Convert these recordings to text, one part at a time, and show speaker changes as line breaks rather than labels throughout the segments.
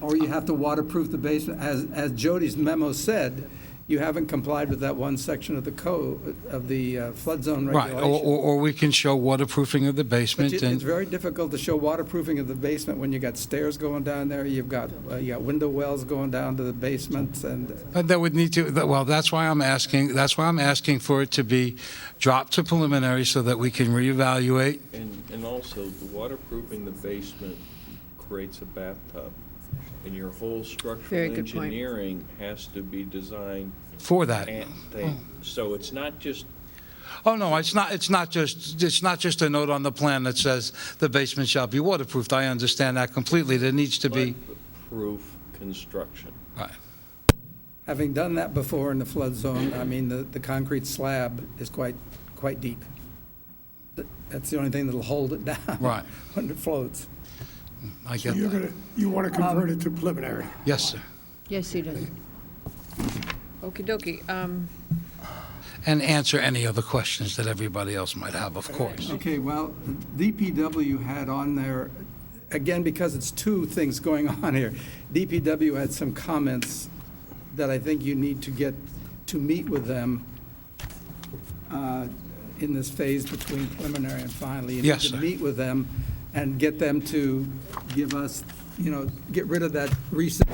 or you have to waterproof the basement. As, as Jody's memo said, you haven't complied with that one section of the code, of the uh, flood zone
Right, or, or
regulation.
or we can show waterproofing of the
But
basement
you- It's
and,
very difficult to show waterproofing of the basement when you got stairs going down there, you've got, uh, you got window wells going down to the basements, and
Uh, that would need to, that- well, that's why I'm asking, that's why I'm asking for it to be dropped to preliminary so that we can reevaluate.
And, and also, the waterproofing the basement creates a bathtub, and your whole
Very
structural
good point.
engineering has to be designed
For that.
and thing. So it's not just,
Oh, no, it's not, it's not just, it's not just a note on the plan that says the basement shall be waterproofed. I understand that completely. There needs to be,
proof construction.
right.
having done that before in the flood zone, I mean, the, the concrete slab is quite, quite deep. That- That's the only thing that'll hold it down.
Right.
When it floats. Um,
I
So
get
you're
that.
gonna, you want to convert it to preliminary?
Yes, sir.
Yes, he does. Okey dokey. Um,
And answer any other questions that everybody else might have, of course.
Okay, well, DPW had on there, again, because it's two things going on here, DPW had some comments that I think you need to get, to meet with them uh, in this phase between preliminary and finally.
Yes,
You need
sir.
to meet with them and get them to give us, you know, get rid of that recent,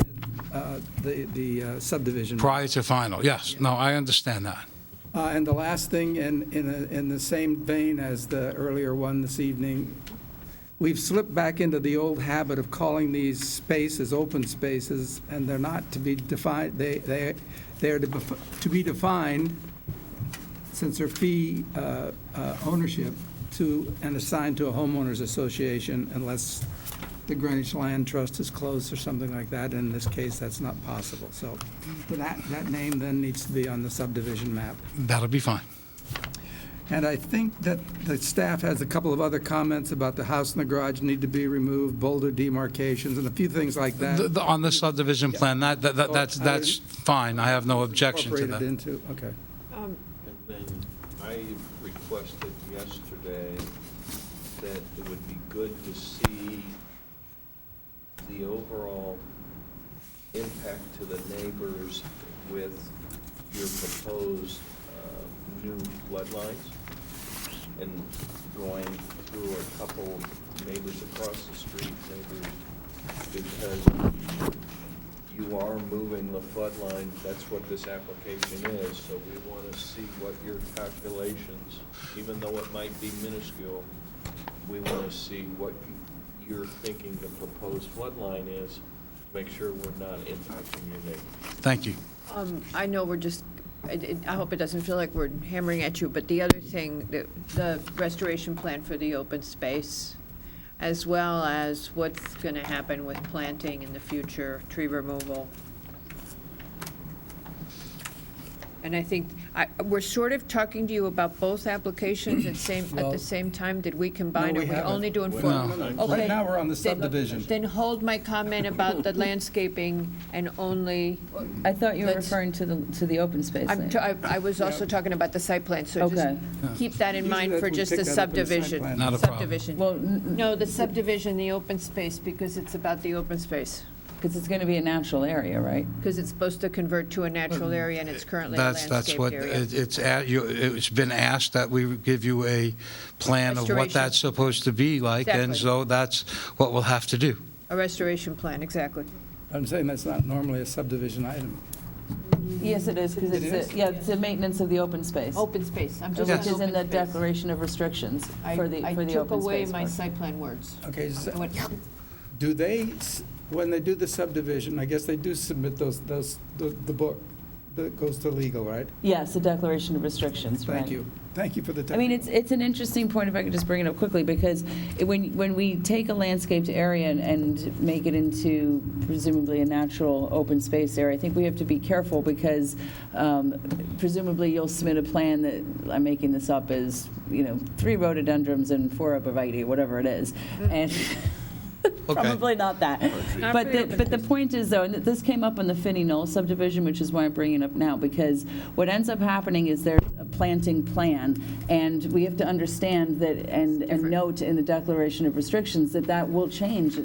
uh, the the uh, subdivision.
Prior to final, yes. No, I understand that.
Uh, And the last thing, in, in, a- in the same vein as the earlier one this evening, we've slipped back into the old habit of calling these spaces open spaces, and they're not to be defined, they, they, they are to bef- to be defined, since they're fee uh, uh, ownership, to, and assigned to a homeowners association unless the Greenwich Land Trust is closed or something like that. In this case, that's not possible. So that, that name then needs to be on the subdivision map.
That'll be fine.
And I think that the staff has a couple of other comments about the house and the garage need to be removed, boulder demarcations, and a few things like
The-
that
the- On the subdivision plan, that, that- that- that's,
Oh, I-
that's fine, I have no objection to
incorporated
that.
into, okay.
And then I requested yesterday that it would be good to see the overall impact to the neighbors with your proposed uh, new floodlines and going through a couple neighbors across the street, neighbors, because you are moving the floodline, that's what this application is, so we want to see what your calculations, even though it might be minuscule, we want to see what you- you're thinking the proposed floodline is, to make sure we're not impacting your neighbor.
Thank you.
um, I know we're just, I did- I hope it doesn't feel like we're hammering at you, but the other thing, the- the restoration plan for the open space, as well as what's going to happen with planting in the future, tree removal. And I think, I- we're sort of talking to you about both applications at same, at
Well-
the same time. Did we combine?
No,
or
we
we
haven't.
only doing four?
No.
Okay.
Right now, we're on the
Then- uh,
subdivision.
Then hold my comment about the landscaping and only,
I thought you were
Let's-
referring to the, to the open space
I'm
land.
t- I I was also talking about the site plan, so just
Okay.
keep that in
Usually
mind
that
for
we
just
pick
the
that up in the site
subdivision.
plan.
Not a problem.
Subdivision.
Well, because
No, the subdivision, the open space, because it's about the open space,
it's going to be a natural area, right?
because it's supposed to convert to a natural
Mm.
area and it's currently a
That's, that's
landscaped
what,
area.
it- it's, at you- it's been asked that we give you a plan of what
Restoration.
that's supposed to be like, and
Exactly.
so that's what we'll have to do.
A restoration plan, exactly.
I'm saying that's not normally a subdivision item.
Yes, it is, because
It
it's,
is?
a- yeah, it's the maintenance of the open space,
Open space, I'm just on
which is in the
open space.
declaration of restrictions
I-
for the, for the
I took
open
away
space.
my
part.
site plan words.
Okay, s-
I went,
do they, s- when they do the subdivision, I guess they do submit those, those, the the book that goes to legal, right?
Yes, the declaration of restrictions, right.
Thank you. Thank you for the.
I mean,
technical-
it's, it's an interesting point, if I could just bring it up quickly, because it- when, when we take a landscaped area and- and make it into presumably a natural open space area, I think we have to be careful, because um, presumably you'll submit a plan that, I'm making this up, is, you know, three rhododendrons and four arborvitae, whatever it is, and probably not that.
Not
But
for the
the,
open
but the point is, though, and this came up on the Finney Knoll subdivision, which is why I'm bringing it up now, because what ends up happening is there's a planting plan, and we have to understand that, and, and note in the declaration of restrictions, that that will change